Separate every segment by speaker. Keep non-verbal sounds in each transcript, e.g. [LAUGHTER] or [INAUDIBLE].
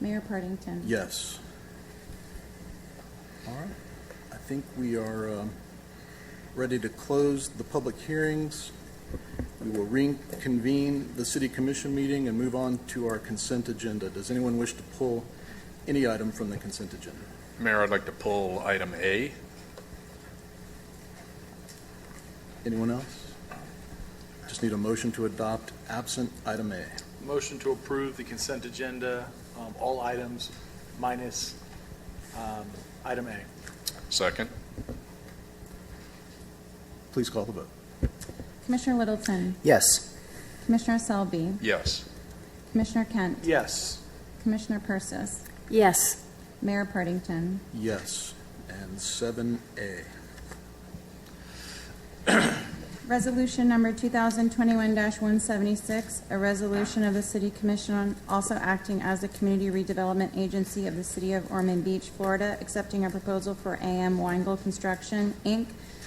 Speaker 1: Mayor Partington.
Speaker 2: Yes. All right. I think we are um, ready to close the public hearings. We will reconvene the city commission meeting and move on to our consent agenda. Does anyone wish to pull any item from the consent agenda?
Speaker 3: Mayor, I'd like to pull item A.
Speaker 2: Anyone else? Just need a motion to adopt absent item A.
Speaker 4: Motion to approve the consent agenda, um, all items minus um, item A.
Speaker 3: Second.
Speaker 2: Please call the vote.
Speaker 1: Commissioner Littleton,
Speaker 5: Yes.
Speaker 1: Commissioner Selby,
Speaker 3: Yes.
Speaker 1: Commissioner Kent,
Speaker 4: Yes.
Speaker 1: Commissioner Persis,
Speaker 6: Yes.
Speaker 1: Mayor Partington.
Speaker 2: Yes. And seven A.
Speaker 1: Resolution number 2021-176, a resolution of the City Commission on also acting as the community redevelopment agency of the City of Ormond Beach, Florida, accepting a proposal for AM Weingold Construction, Inc.,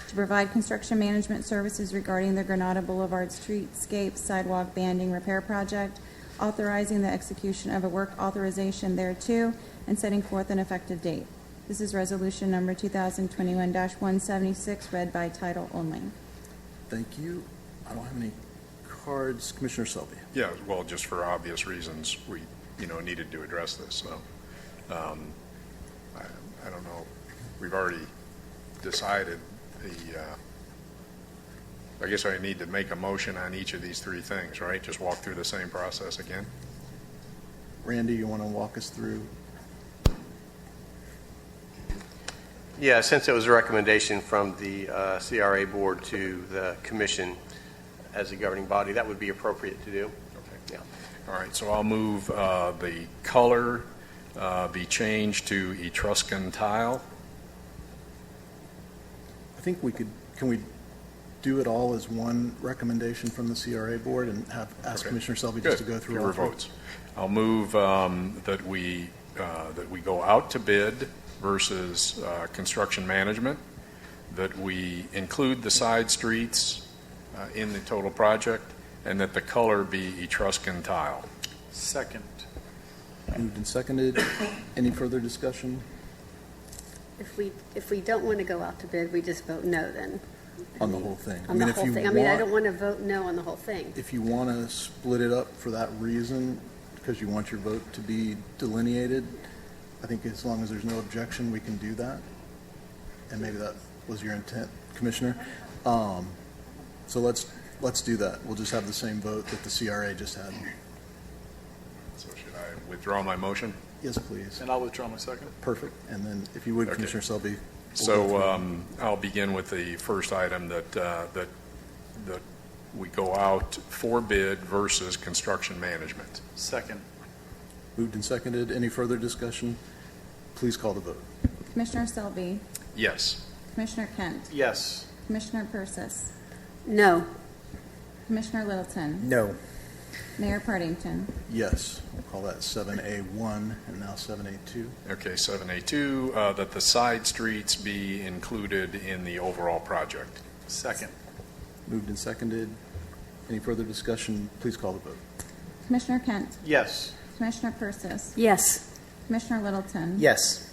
Speaker 1: to provide construction management services regarding the Granada Boulevard streetscape sidewalk banding repair project, authorizing the execution of a work authorization thereto, and setting forth an effective date. This is resolution number 2021-176, read by title only.
Speaker 2: Thank you. I don't have any cards. Commissioner Selby.
Speaker 3: Yeah, well, just for obvious reasons, we, you know, needed to address this, so. um, I I don't know, we've already decided the, uh, I guess I need to make a motion on each of these three things, right? Just walk through the same process again?
Speaker 2: Randy, you want to walk us through
Speaker 7: Yeah, since it was a recommendation from the uh, CRA Board to the Commission as a governing body, that would be appropriate to do.
Speaker 3: Okay.
Speaker 7: Yeah.
Speaker 3: All right, so I'll move uh, the color uh, be changed to Etruscan tile.
Speaker 2: I think we could, can we do it all as one recommendation from the CRA board and have, ask
Speaker 3: Okay.
Speaker 2: Commissioner Selby just to go through all
Speaker 3: Fewer
Speaker 2: three?
Speaker 3: votes. I'll move um, that we, uh, that we go out to bid versus uh, construction management, that we include the side streets uh, in the total project, and that the color be Etruscan tile.
Speaker 4: Second.
Speaker 2: Moved and seconded. Any further discussion
Speaker 6: If we, if we don't want to go out to bid, we just vote no then.
Speaker 2: on the whole thing? I
Speaker 6: On
Speaker 2: mean,
Speaker 6: the
Speaker 2: if
Speaker 6: whole
Speaker 2: you
Speaker 6: thing. I mean, I
Speaker 2: want-
Speaker 6: don't want to vote no on the whole thing.
Speaker 2: If you want to split it up for that reason, because you want your vote to be delineated, I think as long as there's no objection, we can do that. And maybe that was your intent, Commissioner. Um, So let's, let's do that. We'll just have the same vote that the CRA just had.
Speaker 3: So should I withdraw my motion?
Speaker 2: Yes, please.
Speaker 4: And I'll withdraw my second.
Speaker 2: Perfect. And then if you would,
Speaker 3: Okay.
Speaker 2: Commissioner Selby,
Speaker 3: So um, I'll begin with the first item that, uh, that, that we go out for bid versus construction management.
Speaker 4: Second.
Speaker 2: moved and seconded. Any further discussion? Please call the vote.
Speaker 1: Commissioner Selby,
Speaker 3: Yes.
Speaker 1: Commissioner Kent,
Speaker 4: Yes.
Speaker 1: Commissioner Persis,
Speaker 6: No.
Speaker 1: Commissioner Littleton,
Speaker 5: No.
Speaker 1: Mayor Partington.
Speaker 2: Yes. We'll call that 7A1 and now 7A2.
Speaker 3: Okay, 7A2, uh, that the side streets be included in the overall project.
Speaker 4: Second.
Speaker 2: Moved and seconded. Any further discussion? Please call the vote.
Speaker 1: Commissioner Kent,
Speaker 4: Yes.
Speaker 1: Commissioner Persis,
Speaker 6: Yes.
Speaker 1: Commissioner Littleton.
Speaker 5: Yes.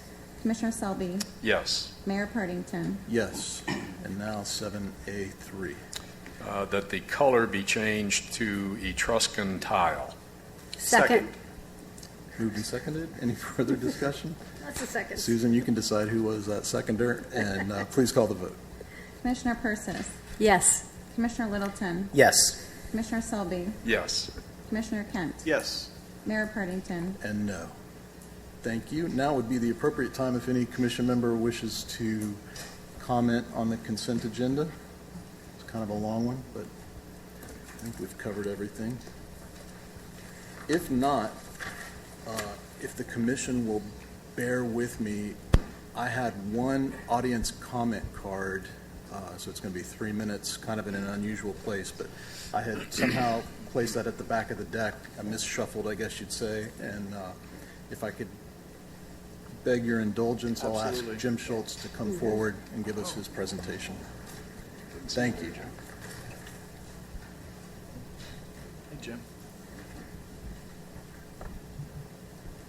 Speaker 1: Commissioner Selby,
Speaker 3: Yes.
Speaker 1: Mayor Partington.
Speaker 2: Yes. And now 7A3.
Speaker 3: Uh, That the color be changed to Etruscan tile.
Speaker 6: Second.
Speaker 2: Moved and seconded. Any [LAUGHS] further discussion?
Speaker 6: That's a second.
Speaker 2: Susan, you can decide who was that seconder, and uh, please call the vote.
Speaker 1: Commissioner Persis,
Speaker 6: Yes.
Speaker 1: Commissioner Littleton,
Speaker 5: Yes.
Speaker 1: Commissioner Selby,
Speaker 3: Yes.
Speaker 1: Commissioner Kent,
Speaker 4: Yes.
Speaker 1: Mayor Partington.
Speaker 2: And no. Thank you. Now would be the appropriate time if any commission member wishes to comment on the consent agenda. It's kind of a long one, but I think we've covered everything. If not, uh, if the commission will bear with me, I had one audience comment card, uh, so it's going to be three minutes, kind of in an unusual place, but I had somehow placed that at the back of the deck. I misshuffled, I guess you'd say, and uh, if I could beg your indulgence, I'll ask
Speaker 4: Absolutely.
Speaker 2: Jim Schultz to come forward and give us his presentation. Thank you.
Speaker 4: Hey, Jim.